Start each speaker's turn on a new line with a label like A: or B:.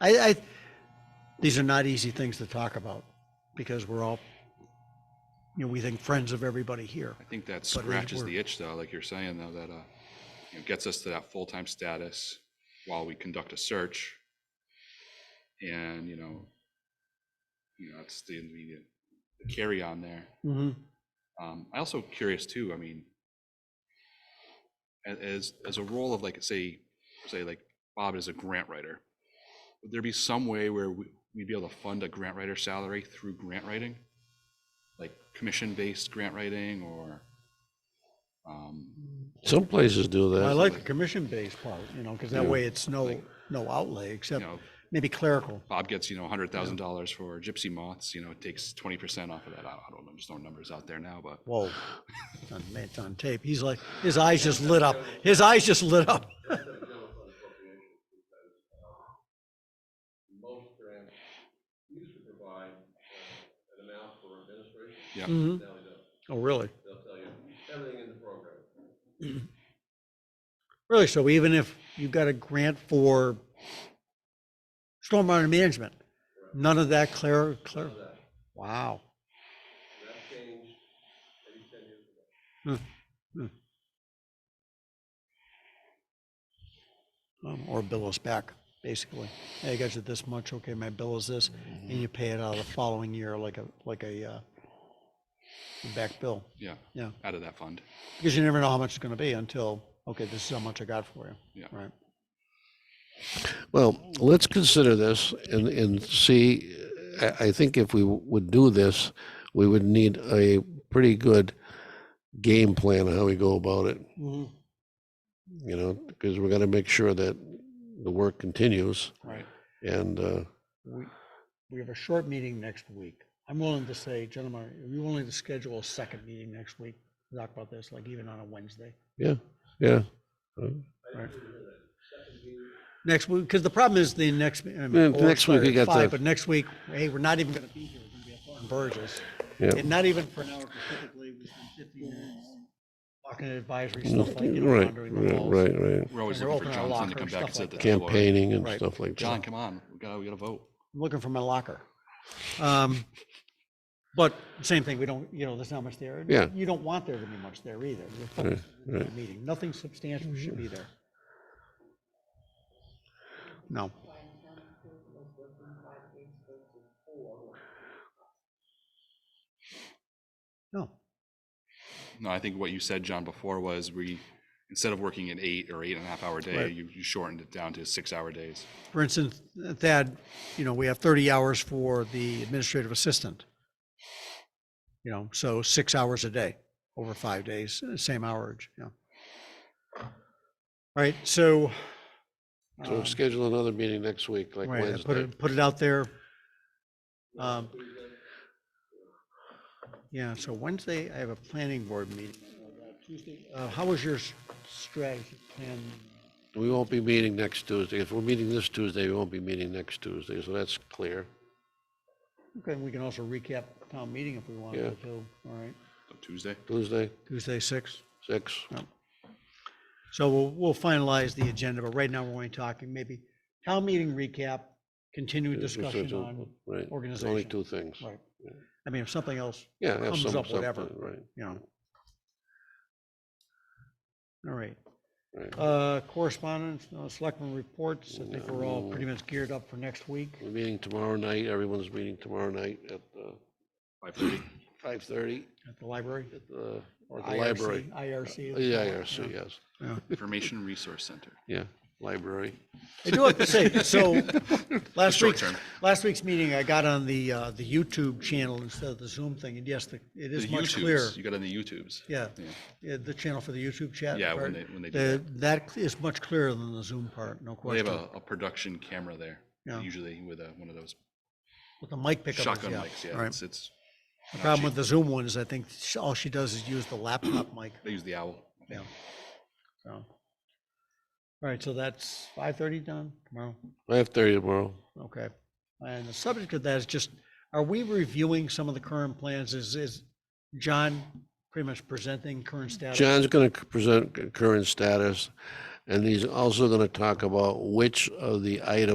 A: I, I, these are not easy things to talk about because we're all, you know, we think friends of everybody here.
B: I think that
A: But it
B: scratches
A: worked.
B: the itch though, like you're saying though, that, uh, you know, gets us to that full-time status while we conduct a search. And, you know, you know, that's the immediate the carry on there.
A: Mm-hmm.
B: Um, I also curious too, I mean, a- as, as a role of like, say, say like Bob is a grant writer, would there be some way where we- we'd be able to fund a grant writer salary through grant writing? Like commission-based grant writing or, um,
C: Some places do that.
A: I like the commission-based part, you know, because that
C: Yeah.
A: way it's no, no outlay
B: you
A: except
B: know,
A: maybe clerical.
B: Bob gets, you know, hundred thousand dollars for gypsy moths, you know, it takes twenty percent off of that. I don't- I don't know, I'm just throwing numbers out there now, but
A: Whoa, it's on, it's on tape. He's like, his eyes just lit up. His eyes just lit up.
D: most grants used to provide uh, an amount for administration,
B: yeah.
A: Mhm.
D: now they don't.
A: Oh, really?
D: They'll tell you everything in the program.
A: Really? So even if you've got a grant for stormwater management, none of that clear, clear? Wow.
D: That changed maybe ten years ago.
A: Um, Or bill us back, basically. Hey, I got you this much, okay, my bill is this, and you pay it out the following year like a, like a, uh, back bill.
B: Yeah.
A: Yeah.
B: Out of that fund.
A: Because you never know how much it's gonna be until, okay, this is how much I got for you.
B: Yeah.
A: Right.
C: Well, let's consider this and, and see, I, I think if we would do this, we would need a pretty good game plan of how we go about it,
A: Mhm.
C: you know, because we're gonna make sure that the work continues
B: Right.
C: and, uh,
A: We, we have a short meeting next week. I'm willing to say, gentlemen, are you willing to schedule a second meeting next week? to Talk about this, like even on a Wednesday?
C: yeah, yeah. Uh,
A: Next week, because the problem is the next. I mean,
C: Yeah,
A: or
C: next week we
A: sorry,
C: got
A: five,
C: the-
A: But next week, hey, we're not even gonna be here, we're gonna be up on Burgess.
C: Yeah.
A: And not even for an hour specifically, we spent fifteen minutes talking advisory stuff like, you know,
C: Right,
A: wandering the
C: right,
A: walls.
C: right, right.
B: We're always
A: And we're
B: looking
A: opening our
B: for Johnson to
A: locker
B: come
A: and
B: back and
A: stuff
B: sit at the
A: like
B: table.
C: Campaigning and
A: Right.
C: stuff like
B: John,
C: that.
B: come on, we gotta, we gotta vote.
A: I'm looking for my locker. Um, But same thing, we don't, you know, there's not much there. and
C: Yeah.
A: You don't want there to be much there either. You're focused on the Meeting, nothing substantial should be there. No. No,
B: No, I think what you said, John, before was we, instead of working an eight or eight and a half hour day,
A: Right.
B: you, you shortened it down to six hour days.
A: for instance, Thad, you know, we have thirty hours for the administrative assistant. You know, so six hours a day, over five days, uh, same hourage, yeah. All right, so.
C: So
A: um,
C: we'll schedule another meeting next week, like
A: Right, I put
C: Wednesday.
A: it, put it out there. Um, Yeah, so Wednesday, I have a planning board meeting. Tuesday, uh, How was your s- strategy plan?
C: We won't be meeting next Tuesday. If we're meeting this Tuesday, we won't be meeting next Tuesday, so that's clear.
A: Okay, we can also recap town meeting if we want to,
C: Yeah.
A: too, all right?
B: So Tuesday,
C: Tuesday,
A: Tuesday, six.
C: six.
A: So we'll, we'll finalize the agenda, but right now we're only talking maybe town meeting recap, continued
C: It's- it's-
A: discussion
C: it's
A: on,
C: o- right, it's Only
A: organization.
C: two things.
A: right. I mean, if something else
C: Yeah. have
A: comes
C: some-
A: up, whatever.
C: something, Right,
A: you know. All right,
C: right.
A: uh, correspondence, no selectmen reports, I think we're all pretty much geared up for next week.
C: We're meeting tomorrow night. Everyone's meeting tomorrow night at uh,
B: five thirty.
C: five thirty
A: At the library?
C: at the, or the
A: IRC,
C: library. Uh,
A: IRC.
C: Yeah, IRC, yes.
B: Information Resource Center.
C: Yeah, library.
A: I do have to say, so, last
B: short
A: week's,
B: term.
A: last week's meeting, I got on the, uh, the YouTube channel instead of the Zoom thing, and yes, the- it
B: The
A: is much clearer.
B: YouTubes, you got on the YouTubes.
A: Yeah,
B: Yeah.
A: yeah, the channel for the YouTube chat.
B: Yeah, when
A: part,
B: they- when they do
A: the- That is much clearer than the Zoom part, no
B: They have
A: question.
B: a, a production camera there,
A: Yeah.
B: usually with a, one of those
A: With the mic pickup. is-
B: shotgun mics, yeah,
A: right.
B: it's, it's,
A: The problem with the Zoom one is I think sh- all she does is use the laptop mic.
B: they use the owl.
A: Yeah. So. All right, so that's five thirty done tomorrow.
C: Five thirty tomorrow.
A: Okay. And the subject of that is just, are we reviewing some of the current plans? Is, is John pretty much presenting current status?
C: John's gonna c- present c- current status, and he's also gonna talk about which of the items